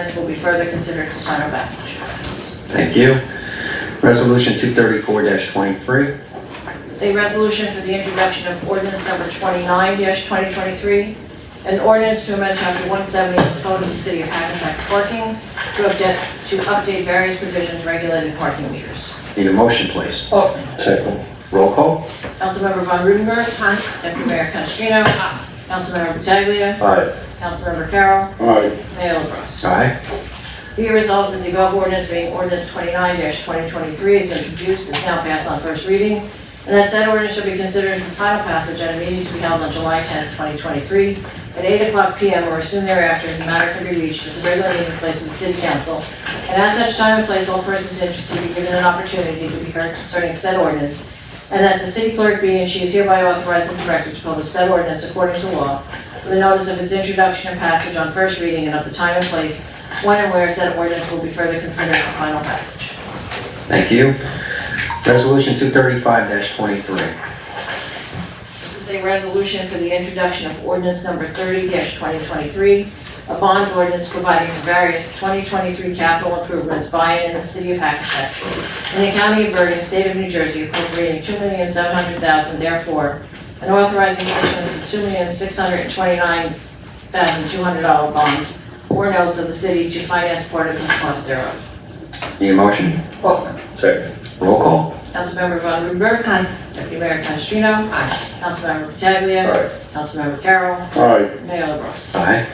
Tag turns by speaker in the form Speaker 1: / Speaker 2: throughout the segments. Speaker 1: ordinance will be further considered for final passage.
Speaker 2: Thank you. Resolution two thirty-four twenty-three,
Speaker 1: It's a resolution for the introduction of ordinance number twenty-nine twenty twenty-three, an ordinance to amend chapter one seventy of the Code of the City of Hackensack Parking to update, to update various provisions regulating parking meters.
Speaker 2: need a motion, please.
Speaker 1: Offered.
Speaker 3: Second.
Speaker 2: Roll call.
Speaker 1: Councilmember Von Rudenberg. Deputy Mayor Canestrino. Councilmember Pataglia.
Speaker 2: Aye.
Speaker 1: Councilmember Carroll.
Speaker 3: Aye.
Speaker 1: Mayor LaBrus.
Speaker 2: Aye.
Speaker 1: Be it resolved that the above ordinance being ordinance twenty-nine twenty twenty-three is introduced and is now passed on first reading, and that said ordinance shall be considered for final passage at a meeting to be held on July tenth, twenty twenty-three, at eight o'clock PM or as soon thereafter, as the matter can be reached at the regular meeting place of the city council, and at such time and place, all persons interested be given an opportunity to be heard concerning said ordinance, and that the city clerk be and she is hereby authorized and directed to publish said ordinance according to law, with a notice of its introduction and passage on first reading and of the time and place when and where said ordinance will be further considered for final passage.
Speaker 2: Thank you. Resolution two thirty-five twenty-three,
Speaker 1: This is a resolution for the introduction of ordinance number thirty twenty twenty-three, a bond ordinance providing for various twenty twenty-three capital improvements by and in the city of Hackensack, in the county of Bergen, state of New Jersey, appropriating two million seven hundred thousand therefore, and authorizing the issuance of two million six hundred twenty-nine thousand two hundred dollar bonds or notes of the city to finance part of the cost thereof.
Speaker 2: need a motion.
Speaker 3: Second.
Speaker 2: Roll call.
Speaker 1: Councilmember Von Rudenberg. Aye. Deputy Mayor Canestrino. Aye. Councilmember Pataglia.
Speaker 3: Aye.
Speaker 1: Councilmember Carroll.
Speaker 3: Aye.
Speaker 1: Mayor LaBrus.
Speaker 2: Aye.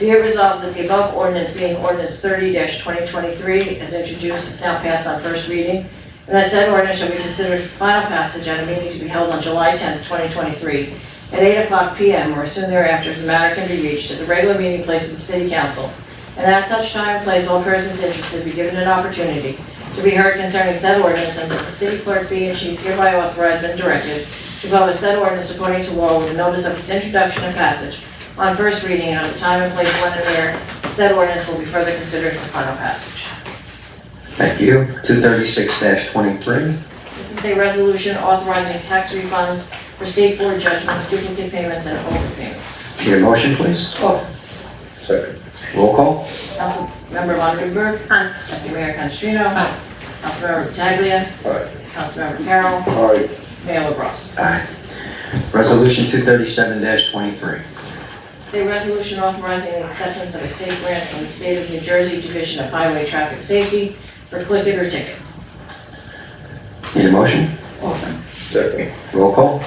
Speaker 1: Be it resolved that the above ordinance being ordinance thirty twenty twenty-three as introduced is now passed on first reading. And that said ordinance shall be considered for final passage at a meeting to be held on July tenth, twenty twenty-three at eight o'clock PM or soon thereafter as the matter can be reached at the regular meeting place of the city council. And at such time and place, all persons interested be given an opportunity to be heard concerning said ordinance and that the city clerk be and she is hereby authorized and directed to publish said ordinance according to law with a notice of its introduction and passage on first reading and on the time and place when and where said ordinance will be further considered for final passage.
Speaker 2: Thank you. Two thirty-six twenty-three,
Speaker 1: This is a resolution authorizing tax refunds for state board judgments, duplicate payments, and overpayments.
Speaker 2: need a motion, please.
Speaker 3: Second.
Speaker 2: Roll call.
Speaker 1: Councilmember Von Rudenberg. Aye. Deputy Mayor Canestrino. Aye. Councilmember Pataglia.
Speaker 3: Aye.
Speaker 1: Councilmember Carroll.
Speaker 3: Aye.
Speaker 1: Mayor LaBrus.
Speaker 2: Aye. Resolution two thirty-seven twenty-three,
Speaker 1: It's a resolution authorizing the acceptance of a state grant from the State of New Jersey Division of Highway Traffic Safety for click it or ticket.
Speaker 2: need a motion.
Speaker 3: Second.
Speaker 2: Roll call.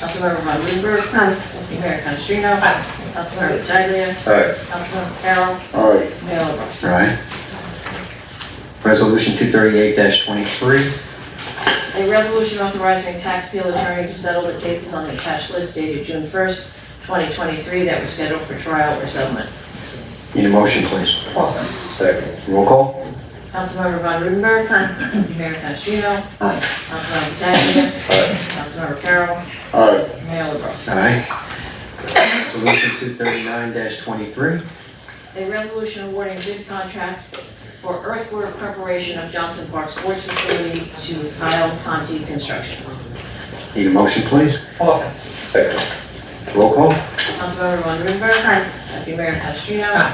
Speaker 1: Councilmember Von Rudenberg. Aye. Deputy Mayor Canestrino. Aye. Councilmember Pataglia.
Speaker 3: Aye.
Speaker 1: Councilmember Carroll.
Speaker 3: Aye.
Speaker 1: Mayor LaBrus.
Speaker 2: Aye. Resolution two thirty-eight twenty-three,
Speaker 1: A resolution authorizing tax appeal attorney to settle the cases on the attached list dated June first, twenty twenty-three that were scheduled for trial or settlement.
Speaker 2: need a motion, please.
Speaker 3: Second.
Speaker 2: Roll call.
Speaker 1: Councilmember Von Rudenberg. Aye. Deputy Mayor Canestrino. Aye. Councilmember Pataglia.
Speaker 3: Aye.
Speaker 1: Councilmember Carroll.
Speaker 3: Aye.
Speaker 1: Mayor LaBrus.
Speaker 2: Aye. Resolution two thirty-nine twenty-three,
Speaker 1: A resolution awarding bid contract for earthwork preparation of Johnson Park Sports Facility to Kyle Conti Construction.
Speaker 2: need a motion, please.
Speaker 3: Second.
Speaker 2: Roll call.
Speaker 1: Councilmember Von Rudenberg. Aye. Deputy Mayor Canestrino. Aye.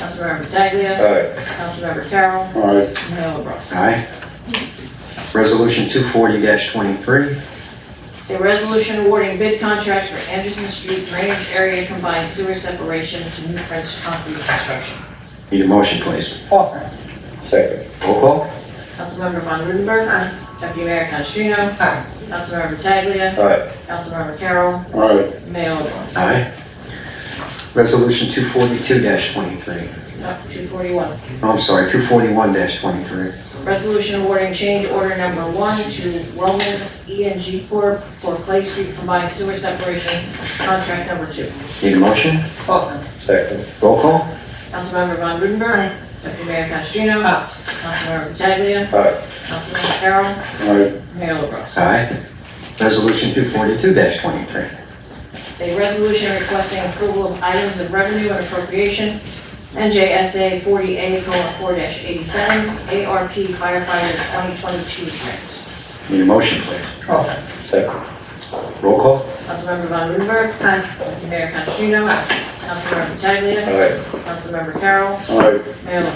Speaker 1: Councilmember Pataglia.
Speaker 3: Aye.
Speaker 1: Councilmember Carroll.
Speaker 3: Aye.
Speaker 1: Mayor LaBrus.
Speaker 2: Aye. Resolution two forty twenty-three,
Speaker 1: A resolution awarding bid contracts for Anderson Street Drainage Area Combined Sewer Separation to New Prince Concrete Construction.
Speaker 2: need a motion, please.
Speaker 3: Second.
Speaker 2: Roll call.
Speaker 1: Councilmember Von Rudenberg. Aye. Deputy Mayor Canestrino. Aye. Councilmember Pataglia.
Speaker 3: Aye.
Speaker 1: Councilmember Carroll.
Speaker 3: Aye.
Speaker 1: Mayor LaBrus.
Speaker 2: Aye. Resolution two forty-two twenty-three, Oh,
Speaker 1: Not Uh, two forty-one.
Speaker 2: I'm sorry, two forty-one twenty-three,
Speaker 1: Resolution awarding change order number one to Roman E and G Corp. for Clay Street Combined Sewer Separation Contract Number Two.
Speaker 2: need a motion?
Speaker 3: Second.
Speaker 2: Roll call.
Speaker 1: Councilmember Von Rudenberg. Deputy Mayor Canestrino. Councilmember Pataglia.
Speaker 3: Aye.
Speaker 1: Councilmember Carroll.
Speaker 3: Aye.
Speaker 1: Mayor LaBrus.
Speaker 2: Aye. Resolution two forty-two twenty-three,
Speaker 1: It's a resolution requesting approval of items of revenue and appropriation, NJSA forty A four eighty-seven, ARP firefighter twenty twenty-two grant.
Speaker 2: need a motion, please.
Speaker 3: Second.
Speaker 2: Roll call.
Speaker 1: Councilmember Von Rudenberg. Deputy Mayor Canestrino. Councilmember Pataglia.
Speaker 3: Aye.
Speaker 1: Councilmember Carroll.
Speaker 3: Aye.
Speaker 1: Mayor LaBrus.